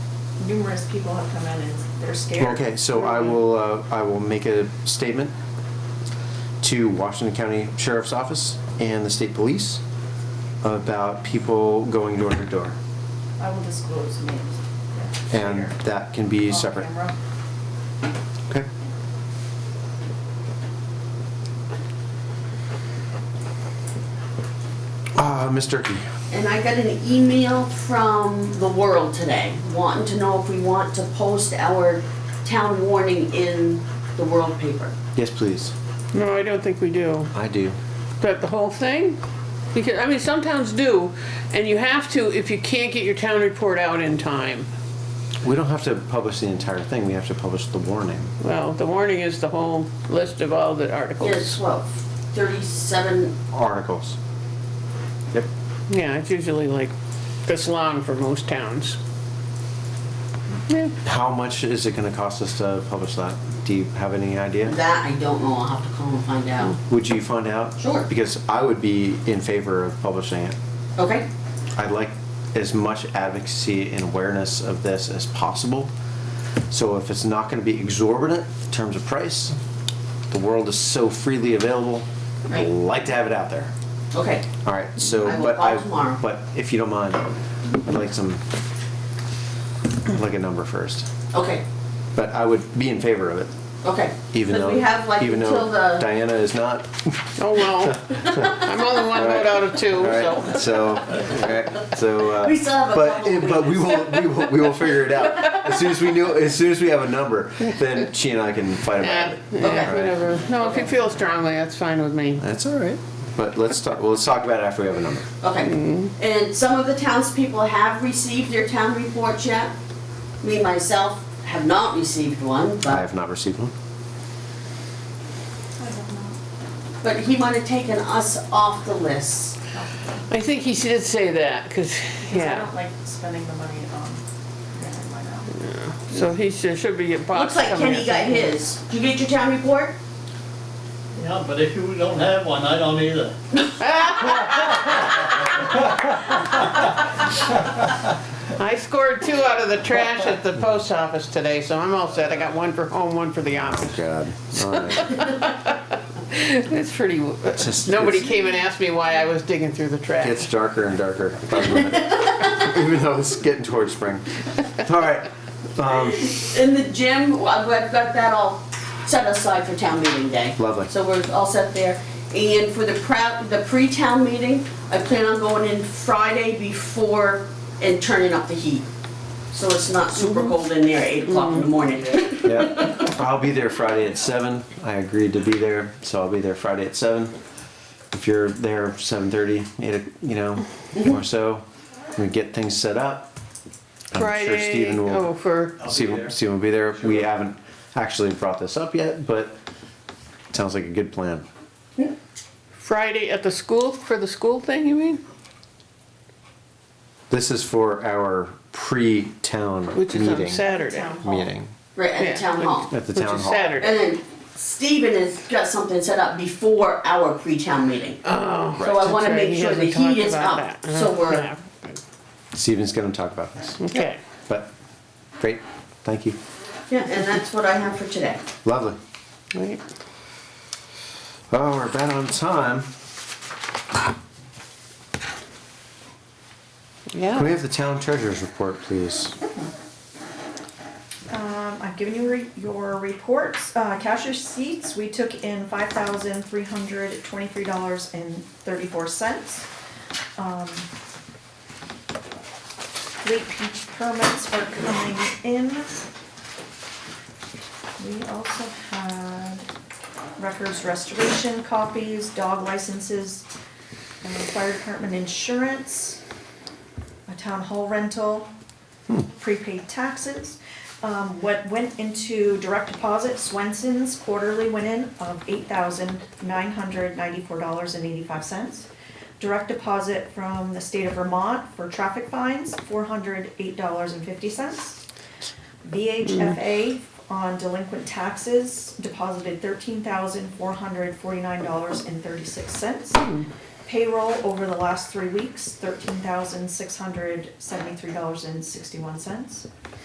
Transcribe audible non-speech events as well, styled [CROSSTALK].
numerous people have come in and they're scared. Okay, so I will, uh, I will make a statement to Washington County Sheriff's Office and the state police about people going door to door. I will disclose names. And Later. that can be Off separate. camera. Okay. Ah, Ms. Turkey. And I got an email from the world today, wanting to know if we want to post our town warning in the world paper. Yes, please. No, I don't think we do. I do. But the whole thing? Because, I mean, some towns do, and you have to if you can't get your town report out in time. We don't have to publish the entire thing, we have to publish the warning. Well, the warning is the whole list of all the There's, articles. what, 37, Articles. Yep. Yeah, it's usually like this long for most towns. Yeah, How much is it gonna cost us to publish that? Do you have any idea? that I don't know, I'll have to call and find out. Would you find out? Sure. Because I would be in favor of publishing it. Okay? I'd like as much advocacy and awareness of this as possible. So if it's not gonna be exorbitant in terms of price, the world is so freely available, I'd Right. like to have it out there. Okay. All right, so, I will but call I, tomorrow. but if you don't mind, I'd like some, I'd like a number first. Okay, But I would be in favor of it, okay. even Because though, we have like even until though the- Diana is not. [LAUGHS] oh well. I'm only one vote out of two, All so. right, so, all right, so. uh, [LAUGHS] We still have a But, couple it- but we will, we will, we will figure it out. As soon as we know, as soon as we have a number, then she and I can fight about Yeah, it. All yeah, right. whatever. No, if you feel strongly, that's fine with me. That's all right. But let's talk, well, let's talk about it after we have a number. Okay, and some of the townspeople have received their town reports yet. Me, myself, have not received one, I but, have not received one. I have not. but he might have taken us off the list. I think he did say that, because, 'Cause I yeah. don't like spending the money on, never mind uh, now. So he should, should be getting Looks boxed. like coming Kenny or got something. his. Did you get your town report? Yeah, but if you don't have one, I don't either. I scored two out of the trash at the post office today, so I'm all set. I got one for home, one for the [LAUGHS] office. God. All [LAUGHS] right. It's pretty, just- nobody it's- came and asked me why I was digging through the It's trash. darker and darker. [LAUGHS] by the minute. Even though it's getting towards spring. All right. Um, In the gym, I've I've got that all set aside for town meeting day. Lovely. So we're all set there. And for the proud, the pre-town meeting, I plan on going in Friday before and turning up the heat. So it's not super cold in there, eight o'clock in the [LAUGHS] morning. yeah. [LAUGHS] I'll be there Friday at seven. I agreed to be there, so I'll be there Friday at seven. If you're there seven thirty, eight, o- you know, or so, we get things set up. I'm sure Friday, Stephen will. oh, for, I'll be Stephen, there. Stephen will be there. We haven't actually brought this up yet, but it sounds like a good plan. Friday at the school, for the school thing, you mean? This is for our pre-town Which is on meeting. Saturday. Town hall. Meeting Right, at Yeah, the town hall. at the Which town is hall. Saturday. And then Stephen has got something set up before our pre-town meeting. Oh. So I wanna that's right, make he sure the hasn't talked heat is about up, that. so we're, Yeah. Stephen's going to talk about this. Okay. But great, thank you. yeah, and that's what I have for today. Lovely. Right. Oh, we're about on time. Can we Yeah, have the town treasurer's report, please? Um, I've given you re- your reports, uh, cash receipts, we took in five thousand three hundred twenty-three dollars and thirty-four cents. Um, Late pe- permits are coming in. We also had records restoration copies, dog licenses, and fire department insurance, a town hall rental, prepaid taxes. Um, what went into direct deposit, Swenson's quarterly went in of eight thousand nine hundred ninety-four dollars and eighty-five cents. Direct deposit from the state of Vermont for traffic fines, four hundred eight dollars and fifty cents. VHFA on delinquent taxes deposited thirteen thousand four hundred forty-nine dollars and thirty-six cents. Payroll over the last three weeks, thirteen thousand six hundred seventy-three dollars and sixty-one cents.